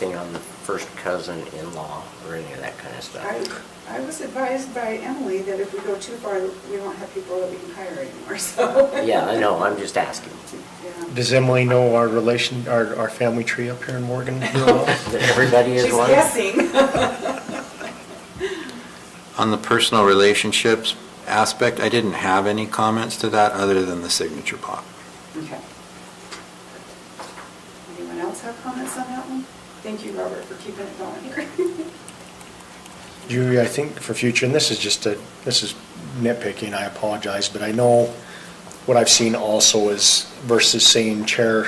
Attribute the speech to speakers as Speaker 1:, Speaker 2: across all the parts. Speaker 1: thing on first cousin in-law or any of that kind of
Speaker 2: I,
Speaker 1: stuff.
Speaker 2: I was advised by Emily that if we go too far, we won't have people that we can hire anymore, so.
Speaker 1: Yeah, I know, I'm just asking.
Speaker 2: Yeah.
Speaker 3: Does Emily know our relation, our, our family tree up here in Morgan?
Speaker 1: That everybody is one?
Speaker 2: She's guessing.
Speaker 4: On the personal relationships aspect, I didn't have any comments to that other than the signature block.
Speaker 2: Okay. Anyone else have comments on that one? Thank you, Robert, for keeping it going here.
Speaker 3: You, I think for future, and this is just a, this is nitpicking, I apologize, but I know what I've seen also is versus saying Chair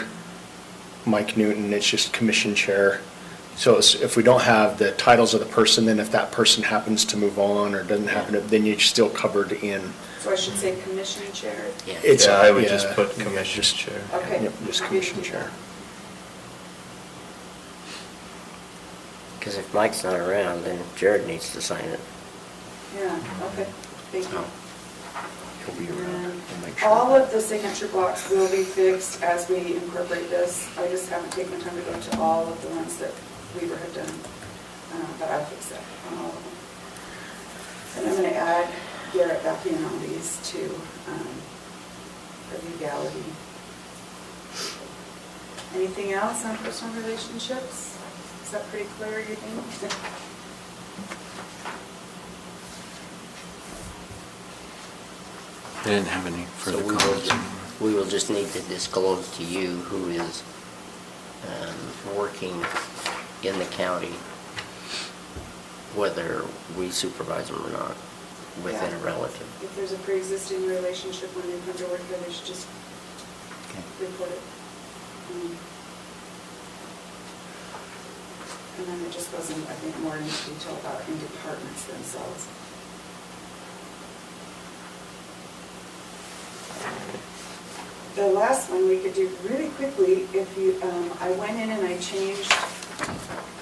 Speaker 3: Mike Newton, it's just Commission Chair. So it's- if we don't have the titles of the person, then if that person happens to move on or doesn't happen, then you're still covered in.
Speaker 2: So I should say commission chair.
Speaker 1: Yeah.
Speaker 3: It's-
Speaker 5: Yeah, I would just
Speaker 3: yeah,
Speaker 5: put
Speaker 3: yeah,
Speaker 5: commission
Speaker 3: just-
Speaker 5: chair.
Speaker 2: Okay.
Speaker 3: Yep, Just Commission Chair.
Speaker 1: Because if Mike's not around, then Jared needs to sign it.
Speaker 2: Yeah, okay, thank you.
Speaker 1: So, He'll be around. We'll make sure.
Speaker 2: All of the signature blocks will be fixed as we incorporate this. I just haven't taken time to go to all of the ones that Weaver had done, uh, but I'll fix that on all of them. And I'm going to add Garrett back in on these two um, for legality. Anything else on personal relationships? Is that pretty clear, you think?
Speaker 4: I didn't have any
Speaker 1: So
Speaker 4: further
Speaker 1: we
Speaker 4: comments.
Speaker 1: will, we will just need to disclose to you who is um, working in the county, whether we supervise them or not, within a
Speaker 2: Yeah.
Speaker 1: relative.
Speaker 2: If there's a pre-existing relationship when they come to work here, they should just report it. Mm. And then it just goes in, I think, more into detail about in departments themselves. The last one we could do really quickly, if you, um, I went in and I changed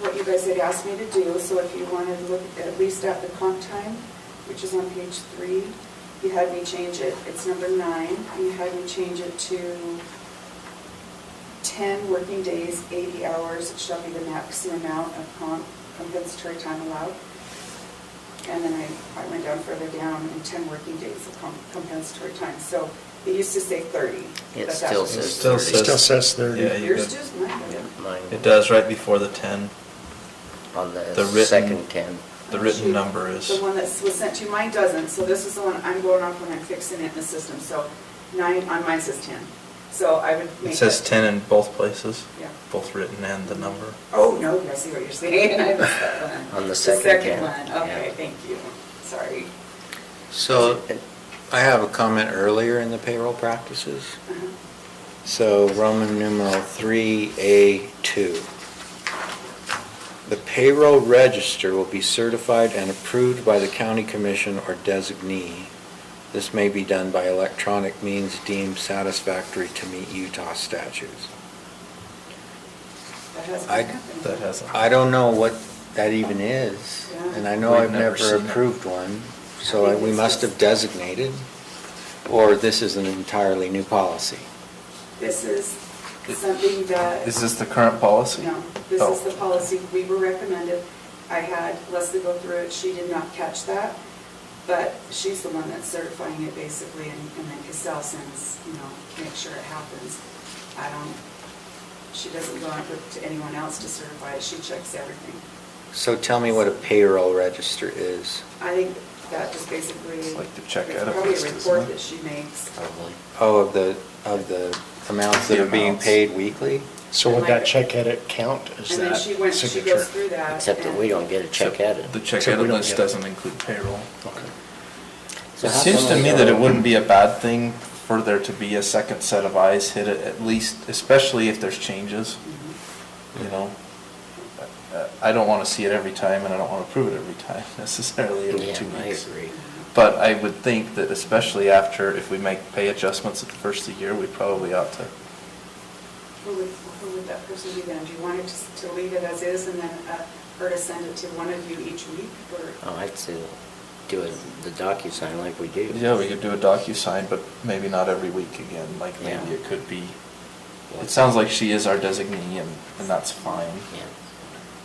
Speaker 2: what you guys had asked me to do, so if you wanted to look at least at the comp time, which is on page three, you had me change it, it's number nine, and you had me change it to 10 working days, 80 hours shall be the maximum amount of com- compensatory time allowed. And then I, I went down further down, and 10 working days of com- compensatory time. So it used to say 30.
Speaker 1: It
Speaker 2: but
Speaker 1: still
Speaker 2: that's-
Speaker 1: says
Speaker 5: It still
Speaker 1: 30.
Speaker 5: says-
Speaker 3: Still says thirty.
Speaker 5: Yeah, you
Speaker 2: Yours
Speaker 5: could-
Speaker 2: does, mine
Speaker 1: Yeah,
Speaker 2: doesn't.
Speaker 1: mine
Speaker 5: It does right before the 10.
Speaker 1: On
Speaker 5: The
Speaker 1: the
Speaker 5: written-
Speaker 1: second 10.
Speaker 5: The written number is-
Speaker 2: The one that was sent to you, mine doesn't, so this is the one I'm going off when I'm fixing it in the system. So nine, on mine says 10. So I would make
Speaker 5: It says
Speaker 2: that-
Speaker 5: 10 in both places,
Speaker 2: Yeah.
Speaker 5: both written and the number.
Speaker 2: Oh, no, I see what you're saying. I missed that one.
Speaker 1: On the second
Speaker 2: second
Speaker 1: can,
Speaker 2: one, okay,
Speaker 1: yeah.
Speaker 2: thank you. Sorry.
Speaker 4: So I have a comment earlier in the payroll practices.
Speaker 2: Uh-huh.
Speaker 4: So Roman numeral 3A2. The payroll register will be certified and approved by the county commission or designee. This may be done by electronic means deemed satisfactory to meet Utah statutes.
Speaker 2: That has
Speaker 4: I-
Speaker 2: been happening.
Speaker 5: That hasn't.
Speaker 4: I don't know what that even is,
Speaker 2: Yeah.
Speaker 4: and I know
Speaker 5: We've
Speaker 4: I've
Speaker 5: never
Speaker 4: never
Speaker 5: seen it.
Speaker 4: approved one,
Speaker 2: I
Speaker 4: so
Speaker 2: think
Speaker 4: we
Speaker 2: it's
Speaker 4: must
Speaker 2: just-
Speaker 4: have designated, or this is an entirely new policy.
Speaker 2: This is something that.
Speaker 5: Is this the current policy?
Speaker 2: No, this
Speaker 5: Oh.
Speaker 2: is the policy we were recommended. I had Leslie go through it, she did not catch that, but she's the one that's certifying it basically, and and then Cassell sends, you know, make sure it happens. I don't, she doesn't go out to anyone else to certify it, she checks everything.
Speaker 4: So tell me what a payroll register is.
Speaker 2: I think that just basically.
Speaker 5: It's like the check
Speaker 2: it's
Speaker 5: out of
Speaker 2: Probably
Speaker 5: list,
Speaker 2: a
Speaker 5: isn't
Speaker 2: report
Speaker 5: it?
Speaker 2: that she makes.
Speaker 1: Probably.
Speaker 4: Oh, of the, of the amounts that
Speaker 5: The
Speaker 4: are being
Speaker 5: amounts.
Speaker 4: paid weekly?
Speaker 3: So would that check edit count
Speaker 2: And
Speaker 3: as
Speaker 2: then
Speaker 3: that
Speaker 2: she went, she
Speaker 3: signature?
Speaker 2: goes through that.
Speaker 1: Except that
Speaker 2: and-
Speaker 1: we don't get a check
Speaker 5: Except
Speaker 1: edit.
Speaker 5: The check
Speaker 3: Except we
Speaker 5: edit
Speaker 3: don't
Speaker 5: list
Speaker 3: get it.
Speaker 5: doesn't include payroll.
Speaker 3: Okay.
Speaker 1: So
Speaker 5: It
Speaker 1: how
Speaker 5: seems
Speaker 1: come
Speaker 5: to
Speaker 1: we
Speaker 5: me
Speaker 1: don't-
Speaker 5: that it wouldn't be a bad thing for there to be a second set of eyes hit it at least, especially if there's changes,
Speaker 2: Mhm.
Speaker 5: you know? Uh, I don't want to see it every time and I don't want to approve it every time necessarily every
Speaker 1: Yeah,
Speaker 5: two
Speaker 1: I
Speaker 5: weeks.
Speaker 1: agree.
Speaker 5: But I would think that especially after, if we make pay adjustments at the first of the year, we probably ought to.
Speaker 2: Who would, who would that person be then? Do you want it to to leave it as is and then uh, her to send it to one of you each week or?
Speaker 1: Oh, I'd say do it, the DocuSign like we do.
Speaker 5: Yeah, we could do a DocuSign, but maybe not every week again, like
Speaker 1: Yeah.
Speaker 5: maybe it could be, it sounds like she is our designee and, and that's fine.
Speaker 1: Yeah.